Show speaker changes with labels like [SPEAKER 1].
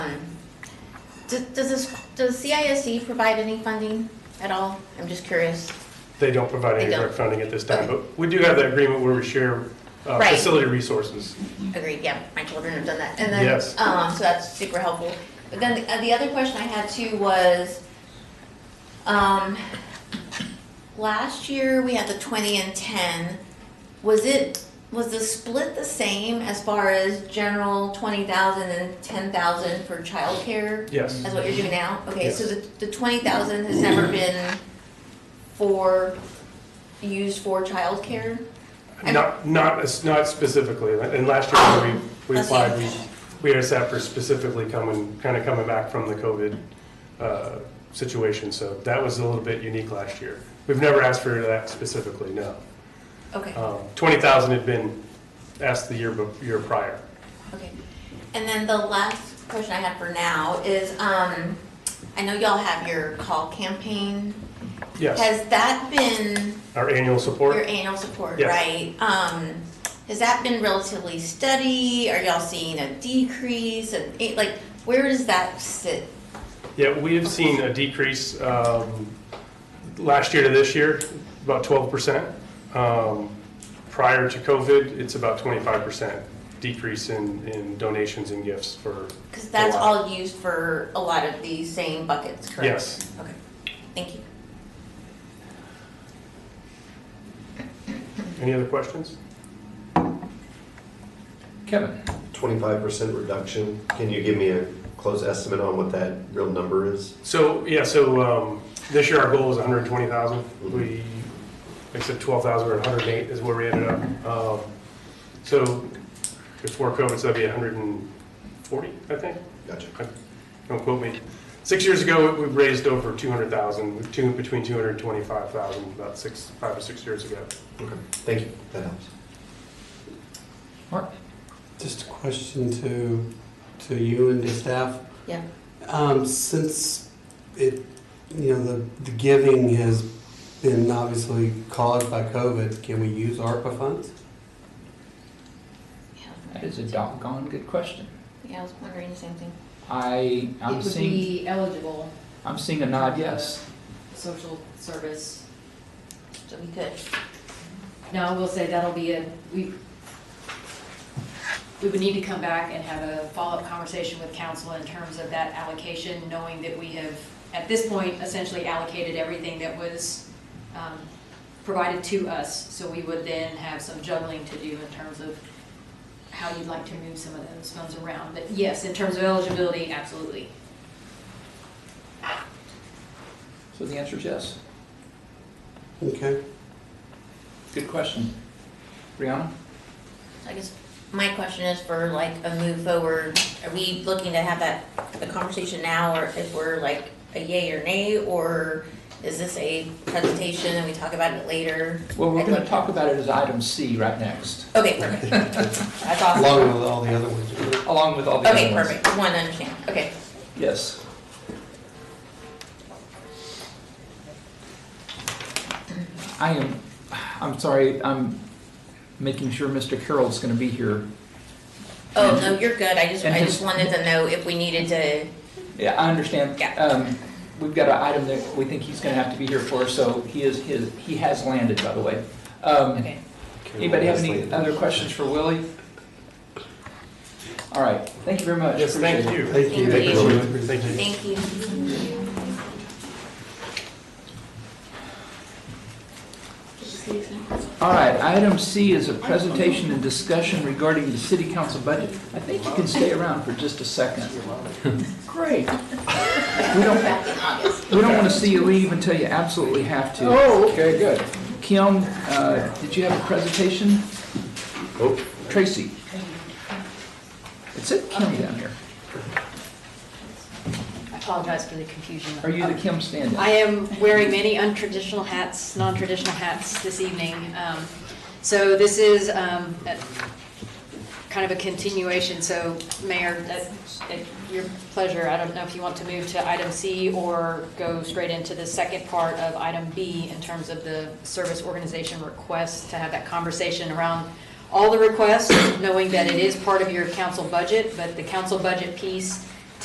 [SPEAKER 1] Does, does this, does CISE E provide any funding at all? I'm just curious.
[SPEAKER 2] They don't provide
[SPEAKER 1] They
[SPEAKER 2] any
[SPEAKER 1] don't.
[SPEAKER 2] direct funding at this time,
[SPEAKER 1] Okay.
[SPEAKER 2] but we do have that agreement where we share uh,
[SPEAKER 1] Right.
[SPEAKER 2] facility resources.
[SPEAKER 1] Agreed, yeah, my children have done that. And then,
[SPEAKER 2] Yes.
[SPEAKER 1] um, so that's super helpful. But then the, uh, the other question I had too was, um, last year we had the twenty and ten. Was it, was the split the same as far as general twenty thousand and ten thousand for childcare?
[SPEAKER 2] Yes.
[SPEAKER 1] That's what you're doing now? Okay, so
[SPEAKER 2] Yes.
[SPEAKER 1] the, the twenty thousand has never been for, used for childcare? And-
[SPEAKER 2] Not, not, as- not specifically, and last year when we, we
[SPEAKER 1] That's
[SPEAKER 2] applied,
[SPEAKER 1] it.
[SPEAKER 2] we, we asked that for specifically coming, kind of coming back from the COVID uh, situation, so that was a little bit unique last year. We've never asked for that specifically, no.
[SPEAKER 1] Okay.
[SPEAKER 2] Um, 20,000 had been asked the year, bef- year prior.
[SPEAKER 1] Okay. And then the last question I had for now is, um, I know y'all have your call campaign.
[SPEAKER 2] Yes,
[SPEAKER 1] Has that been
[SPEAKER 2] our annual
[SPEAKER 1] your
[SPEAKER 2] support,
[SPEAKER 1] annual support,
[SPEAKER 2] Yes.
[SPEAKER 1] right? Um, has that been relatively steady? Are y'all seeing a decrease? And it- like, where does that sit?
[SPEAKER 2] yeah, we have seen a decrease um, last year to this year, about 12%. Um, Prior to COVID, it's about 25% decrease in, in donations and gifts for,
[SPEAKER 1] Because that's
[SPEAKER 2] A lot.
[SPEAKER 1] all used for a lot of these same buckets, correct?
[SPEAKER 2] yes.
[SPEAKER 1] Okay, thank you.
[SPEAKER 2] Any other questions?
[SPEAKER 3] Kevin?
[SPEAKER 4] Twenty-five percent reduction, can you give me a close estimate on what that real number is?
[SPEAKER 2] So, yeah, so um, this year our goal was 120,000. We, except 12,000, we're at 108 is where we ended up. Um, So before COVID, so that'd be 140, I think.
[SPEAKER 4] Gotcha.
[SPEAKER 2] Don't quote me. Six years ago, we raised over 200,000, with two- between 200 and 25,000, about six, five or six years ago.
[SPEAKER 4] Okay. Thank you, that helps.
[SPEAKER 3] Mark?
[SPEAKER 5] Just a question to, to you and your staff.
[SPEAKER 1] Yeah.
[SPEAKER 5] Um, since it, you know, the, the giving has been obviously caused by COVID, can we use ARPA funds?
[SPEAKER 3] That is a doggone good question.
[SPEAKER 1] Yeah, I was wondering the same thing.
[SPEAKER 3] I,
[SPEAKER 6] It
[SPEAKER 3] I'm
[SPEAKER 6] would
[SPEAKER 3] seeing,
[SPEAKER 6] be eligible,
[SPEAKER 3] I'm seeing a nod yes.
[SPEAKER 6] social service.
[SPEAKER 1] So we could,
[SPEAKER 6] No, we'll say that'll be a, we, we would need to come back and have a follow-up conversation with council in terms of that allocation, knowing that we have, at this point, essentially allocated everything that was um, provided to us. So we would then have some juggling to do in terms of how you'd like to move some of those funds around. But yes, in terms of eligibility, absolutely.
[SPEAKER 3] So the answer is yes.
[SPEAKER 5] Okay,
[SPEAKER 3] Good question. Brianna?
[SPEAKER 1] I guess my question is for like a move forward, are we looking to have that, the conversation now, or if we're like a yay or nay, or is this a presentation and we talk about it later?
[SPEAKER 3] Well, we're
[SPEAKER 1] I'd
[SPEAKER 3] going
[SPEAKER 1] like
[SPEAKER 3] to
[SPEAKER 1] to-
[SPEAKER 3] talk about it as item C right next,
[SPEAKER 1] Okay, perfect. That's
[SPEAKER 5] along
[SPEAKER 1] awesome.
[SPEAKER 5] with all the other ones.
[SPEAKER 3] along with all the
[SPEAKER 1] Okay,
[SPEAKER 3] other ones.
[SPEAKER 1] perfect, one, understand, okay.
[SPEAKER 3] Yes. I am, I'm sorry, I'm making sure Mr. Carroll's going to be here.
[SPEAKER 1] Oh, no, you're good, I just,
[SPEAKER 3] And
[SPEAKER 1] I
[SPEAKER 3] his-
[SPEAKER 1] just wanted to know if we needed to,
[SPEAKER 3] Yeah, I understand.
[SPEAKER 1] Yeah.
[SPEAKER 3] Um, We've got an item that we think he's going to have to be here for, so he is, his he has landed, by the way. Um,
[SPEAKER 1] okay.
[SPEAKER 3] Anybody have any other questions for Willie? All right, thank you very much.
[SPEAKER 2] Yes, thank
[SPEAKER 3] Appreciate it.
[SPEAKER 2] you.
[SPEAKER 5] Thank you.
[SPEAKER 1] Thank you.
[SPEAKER 2] Thank you.
[SPEAKER 1] Thank you.
[SPEAKER 3] All right, item C is a presentation and discussion regarding the city council budget. I think you can stay around for just a second. Great. We don't,
[SPEAKER 1] Back in August.
[SPEAKER 3] we don't want to see you leave until you absolutely have to. Oh, okay, good. Kim, uh, did you have a presentation?
[SPEAKER 4] Oh,
[SPEAKER 3] Tracy. It said Kim down here.
[SPEAKER 7] I apologize for the confusion.
[SPEAKER 3] Are you the Kim stand
[SPEAKER 7] I am wearing many untraditional hats, non-traditional hats this evening. Um, So this is um, a- kind of a continuation, so Mayor, at at your pleasure, I don't know if you want to move to item C or go straight into the second part of item B in terms of the service organization request, to have that conversation around all the requests, knowing that it is part of your council budget, but the council budget piece